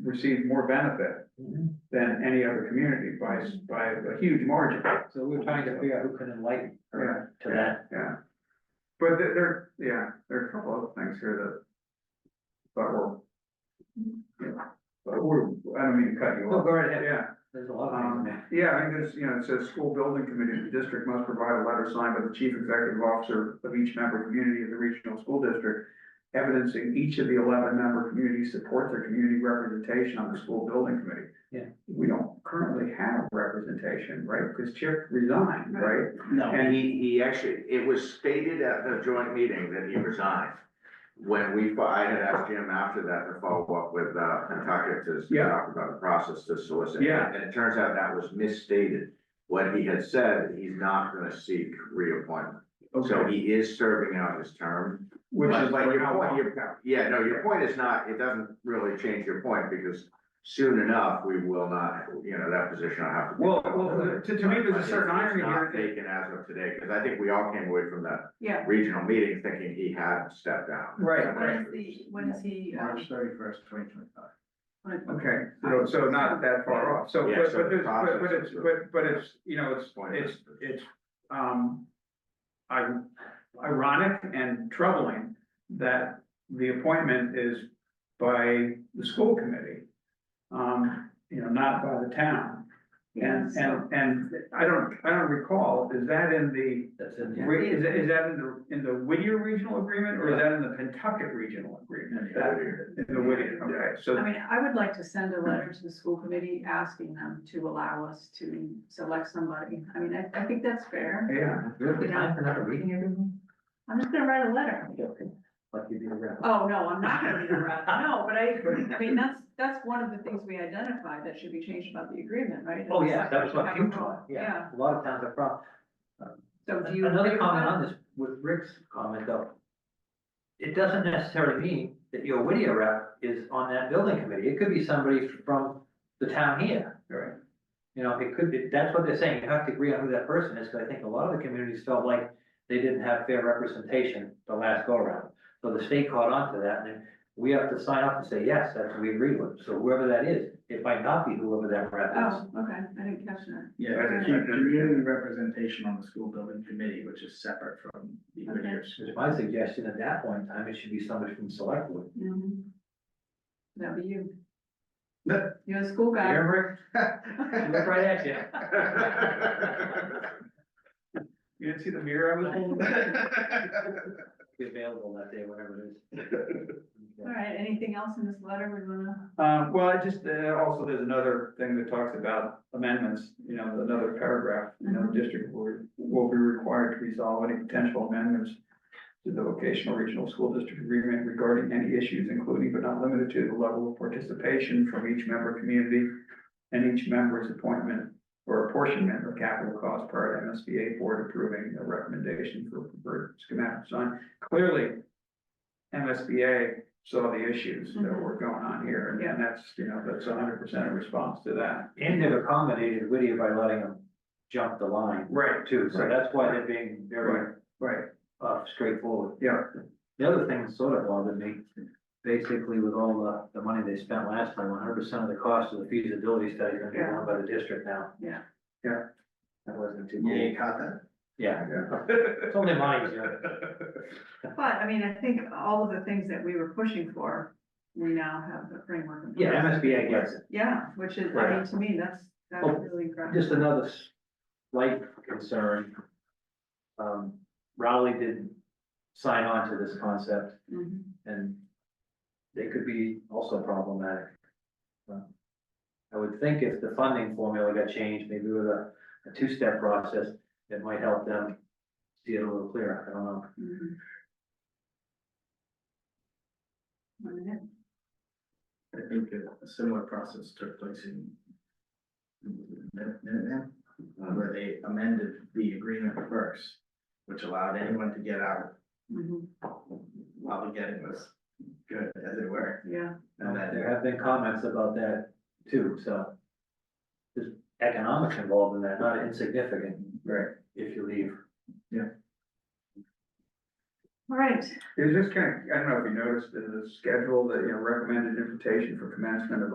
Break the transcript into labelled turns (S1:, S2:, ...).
S1: receive more benefit
S2: Mm-hmm.
S1: than any other community by, s- by a huge margin.
S2: So we're trying to figure out who can enlighten her to that.
S1: Yeah. But there, there, yeah, there are a couple of things here that, but we're, yeah, but we're, I don't mean to cut you
S2: No,
S1: off.
S2: go right ahead.
S1: Yeah,
S2: There's a lot of things in
S1: Um,
S2: there.
S1: yeah, I mean, there's, you know, it says school building committee, of the district must provide a letter signed by the chief executive officer of each member community of the regional school district. Evidencing each of the eleven member communities support their community representation on the school building committee.
S2: Yeah.
S1: We don't currently have representation, right? Because Chip resigned, right?
S2: No,
S3: And he, he actually, it was stated at the joint meeting that he resigned. When we, fo- I had asked Jim after that to follow up with, uh, Pentucket to s-
S1: Yeah.
S3: talk about the process to solicit.
S1: Yeah.
S3: And it turns out that was misstated. What he had said, he's not gonna seek reappointment. So he is serving out his term.
S1: Which
S3: But-
S1: is
S3: but
S1: like
S3: your
S1: how
S3: point-
S1: long?
S3: your- Yeah, no, your point is not, it doesn't really change your point because soon enough, we will not, you know, that position will have to be
S1: Well, well, to, to me, there's a certain irony
S3: not
S1: here.
S3: Taken as of today, because I think we all came away from that
S4: Yeah,
S3: regional meeting thinking he had stepped down.
S1: Right.
S4: when is the, when is he, um,
S1: thirty-first, twenty twenty-five.
S4: when is-
S1: Okay, so, so not that far off, so,
S3: Yeah,
S1: but,
S3: so
S1: but
S3: the
S1: there's, but, but
S3: process
S1: it's,
S3: is
S1: but, but it's, you know, it's,
S3: Point
S1: it's,
S3: is-
S1: it's, um. I, ironic and troubling that the appointment is by the school committee. Um, you know, not by the town,
S4: Yeah,
S1: and,
S4: so,
S1: and, and I don't, I don't recall, is that in the?
S2: that's in there.
S1: Wait, is that, is that in the, in the Whittier regional agreement, or is that in the Pentucket regional agreement? That- In the Whittier, okay, so,
S4: I mean, I would like to send a letter to the school committee asking them to allow us to select somebody. I mean, I, I think that's fair.
S1: yeah,
S2: Do we have time for another reading, everyone?
S4: I'm just gonna write a letter.
S2: Like you did around.
S4: Oh, no, I'm not gonna be around, no, but I, I mean, that's, that's one of the things we identified that should be changed about the agreement, right?
S2: Oh, yeah, that was what
S4: Have a
S2: you
S4: vote.
S2: taught, yeah, a lot of towns have problems.
S4: So do you? agree
S2: Another
S4: with
S2: comment
S4: that?
S2: on this, with Rick's comment though. It doesn't necessarily mean that your Whittier rep is on that building committee, it could be somebody from the town here.
S1: Right.
S2: You know, it could be, that's what they're saying, you have to agree on who that person is, because I think a lot of the communities felt like they didn't have fair representation the last go around. So the state caught on to that, and then we have to sign up and say, yes, that's what we agree with, so whoever that is, it might not be whoever that rep is.
S4: Oh, okay, I didn't catch that.
S5: Yeah,
S1: Right,
S5: there's
S1: it's
S5: a
S1: like-
S5: community representation on the school building committee, which is separate from the
S4: Okay.
S5: Whittier's.
S2: It's my suggestion at that point in time, it should be somebody from select board.
S4: Mhm. That'd be you.
S5: No.
S4: You're the school guy.
S2: Remember it? Look right at you.
S1: You didn't see the mirror I was holding?
S2: Be available that day, whatever it is.
S4: All right, anything else in this letter we wanna,
S1: Um, well, I just, uh, also, there's another thing that talks about amendments, you know, another paragraph, you know,
S4: Mhm.
S1: district board will be required to resolve any potential amendments to the vocational regional school district agreement regarding any issues, including but not limited to the level of participation from each member community and each member's appointment or apportionment of capital costs prior to MSBA board approving a recommendation for preferred schematic design. Clearly, MSBA saw the issues that were going on here, and and that's, you know, that's hundred percent a response to that.
S2: And they've accommodated Whittier by letting them jump the line
S1: Right.
S2: too, so
S1: Right.
S2: that's why they're being very
S1: Right, right,
S2: uh, straightforward.
S1: yeah,
S2: The other thing that sort of bothered me, basically with all the, the money they spent last time, one hundred percent of the cost of the feasibility study is gonna be
S4: Yeah.
S2: done by the district now.
S4: Yeah.
S1: Yeah.
S2: That wasn't too.
S5: Yeah, you caught that?
S2: Yeah, it's only mine, you know.
S4: but I mean, I think all of the things that we were pushing for, we now have the framework. in
S2: yeah,
S4: place.
S2: MSBA gets it.
S4: Yeah, which is, I mean, to me, that's, that's
S2: Well,
S4: really incredible.
S2: Oh, Just another slight concern. Um, Rowley didn't sign on to this concept
S4: Mhm.
S2: and they could be also problematic. Um, I would think if the funding formula got changed, maybe with a, a two-step process, it might help them see it a little clearer. I don't know.
S4: Mhm. One minute.
S5: I think a similar process took place in Min- Minuteman, Uh, where they amended the agreement first, which allowed anyone to get out
S4: Mhm.
S5: while the getting was good as it were.
S4: Yeah,
S5: And then,
S2: There have been comments about that too, so there's economics involved in that, not insignificant
S1: right.
S2: if you leave.
S4: all right,
S1: It was just kind of, I don't know if you noticed in the schedule, that you know, recommended invitation for commencement of